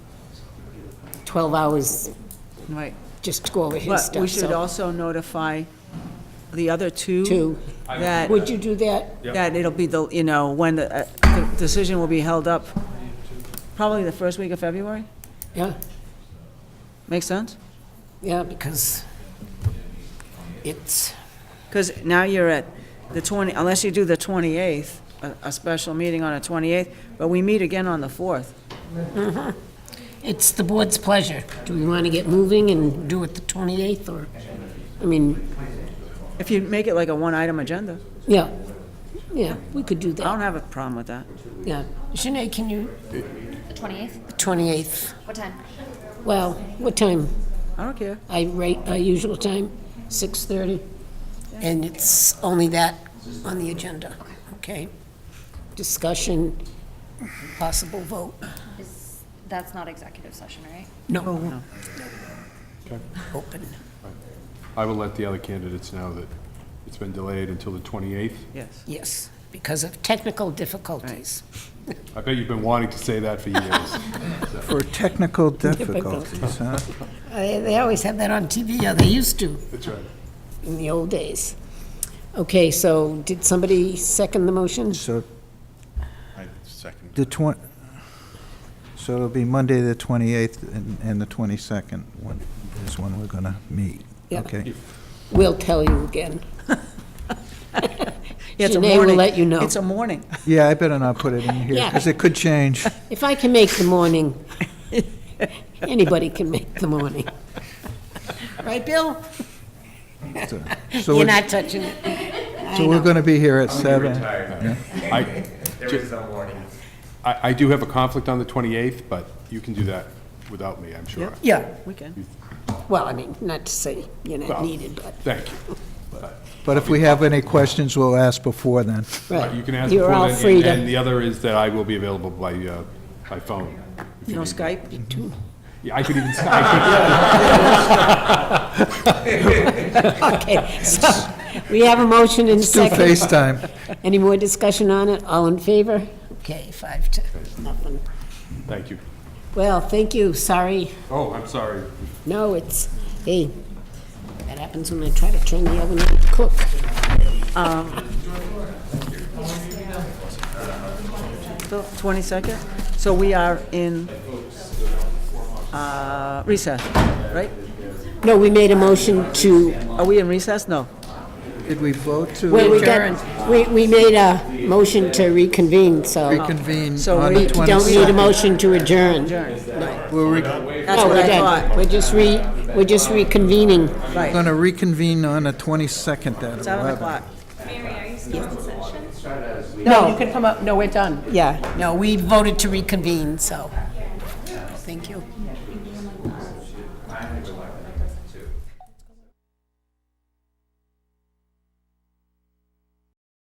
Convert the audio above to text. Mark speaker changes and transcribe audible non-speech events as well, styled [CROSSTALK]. Speaker 1: 12 hours
Speaker 2: Right.
Speaker 1: just to go over his
Speaker 2: But we
Speaker 1: stuff,
Speaker 2: should
Speaker 1: so.
Speaker 2: also notify the other two.
Speaker 1: Two.
Speaker 2: That,
Speaker 1: Would you do that?
Speaker 2: that it'll be the, you know, when the, uh, the decision will be held up, probably the first week of February.
Speaker 1: Yeah,
Speaker 2: Make sense?
Speaker 1: yeah, because it's,
Speaker 2: Because now you're at the 20, unless you do the 28th, a, a special meeting on a 28th, but we meet again on the 4th.
Speaker 1: it's the board's pleasure. Do we want to get moving and do it the 28th, or, I mean,
Speaker 2: If you make it like a one-item agenda,
Speaker 1: yeah, yeah, we could do
Speaker 2: I don't
Speaker 1: that,
Speaker 2: have a problem with that.
Speaker 1: yeah. Shanae, can you,
Speaker 3: The 28th?
Speaker 1: 28th,
Speaker 3: What time?
Speaker 1: well, what time?
Speaker 2: I don't care.
Speaker 1: I rate our usual time, 6:30, and it's only that on the agenda, okay? Discussion, possible vote.
Speaker 3: Is, that's not executive session, right?
Speaker 1: No, open.
Speaker 4: I will let the other candidates know that it's been delayed until the 28th.
Speaker 2: Yes.
Speaker 1: Yes, because of technical difficulties.
Speaker 4: I bet you've been wanting to say that for years.
Speaker 5: For technical
Speaker 1: [LAUGHS]
Speaker 5: difficulties, huh?
Speaker 1: Uh, They always have that on TV, or they used to
Speaker 4: That's right.
Speaker 1: in the old days. Okay, so did somebody second the motion?
Speaker 5: So
Speaker 6: I second.
Speaker 5: the 20, so it'll be Monday, the 28th, and- and the 22nd one is when we're going to meet.
Speaker 1: Yeah.
Speaker 5: Okay.
Speaker 1: We'll tell you [LAUGHS] again.
Speaker 2: Yeah, it's a
Speaker 1: Janae will
Speaker 2: morning.
Speaker 1: let you know.
Speaker 2: It's a morning.
Speaker 5: Yeah, I better not put it in here, because it
Speaker 1: [LAUGHS]
Speaker 5: could change.
Speaker 1: If I can make the morning, anybody can make the morning. Right, Bill?
Speaker 5: So so
Speaker 1: You're
Speaker 5: we're,
Speaker 1: not touching it.
Speaker 5: so we're going to be here at 7.
Speaker 4: I,
Speaker 6: There is no warning.
Speaker 4: I I do have a conflict on the 28th, but you can do that without me, I'm sure.
Speaker 1: Yeah.
Speaker 2: We can.
Speaker 1: Well, I mean, not to say you're not
Speaker 4: Well,
Speaker 1: needed, but.
Speaker 4: Thank you.
Speaker 5: But if we have any questions, we'll ask before then.
Speaker 4: But You can ask
Speaker 1: You're
Speaker 4: before
Speaker 1: all
Speaker 4: then, and-
Speaker 1: free to-
Speaker 4: And the other is that I will be available by, uh, by phone. if you
Speaker 2: No
Speaker 4: need me.
Speaker 2: Skype?
Speaker 4: Yeah, I could even Skype.
Speaker 1: Okay, so we have a motion in
Speaker 5: Do
Speaker 1: second.
Speaker 5: FaceTime.
Speaker 1: Any more discussion on it? All in favor? Okay, five to nothing.
Speaker 4: Thank you.
Speaker 1: Well, thank you, sorry.
Speaker 4: Oh, I'm sorry.
Speaker 1: No, it's, hey, that happens when I try to turn the oven on to cook.
Speaker 2: So, 22nd? So we are in uh, recess, right?
Speaker 1: No, we made a motion to,
Speaker 2: Are we in recess? No.
Speaker 5: Did we vote to
Speaker 1: well, we got, we, we made a motion to reconvene, so
Speaker 5: reconvene
Speaker 2: So
Speaker 5: on
Speaker 2: we
Speaker 5: the
Speaker 1: we don't need a
Speaker 5: 22nd?
Speaker 1: motion to adjourn.
Speaker 5: We're
Speaker 2: That's what I thought.
Speaker 1: Oh, We're just re, we're just reconvening.
Speaker 5: going to reconvene on the 22nd at 11.
Speaker 2: 7 o'clock.
Speaker 1: No,
Speaker 2: can come up, no, we're done. Yeah.
Speaker 1: No, we voted to reconvene, so, thank you.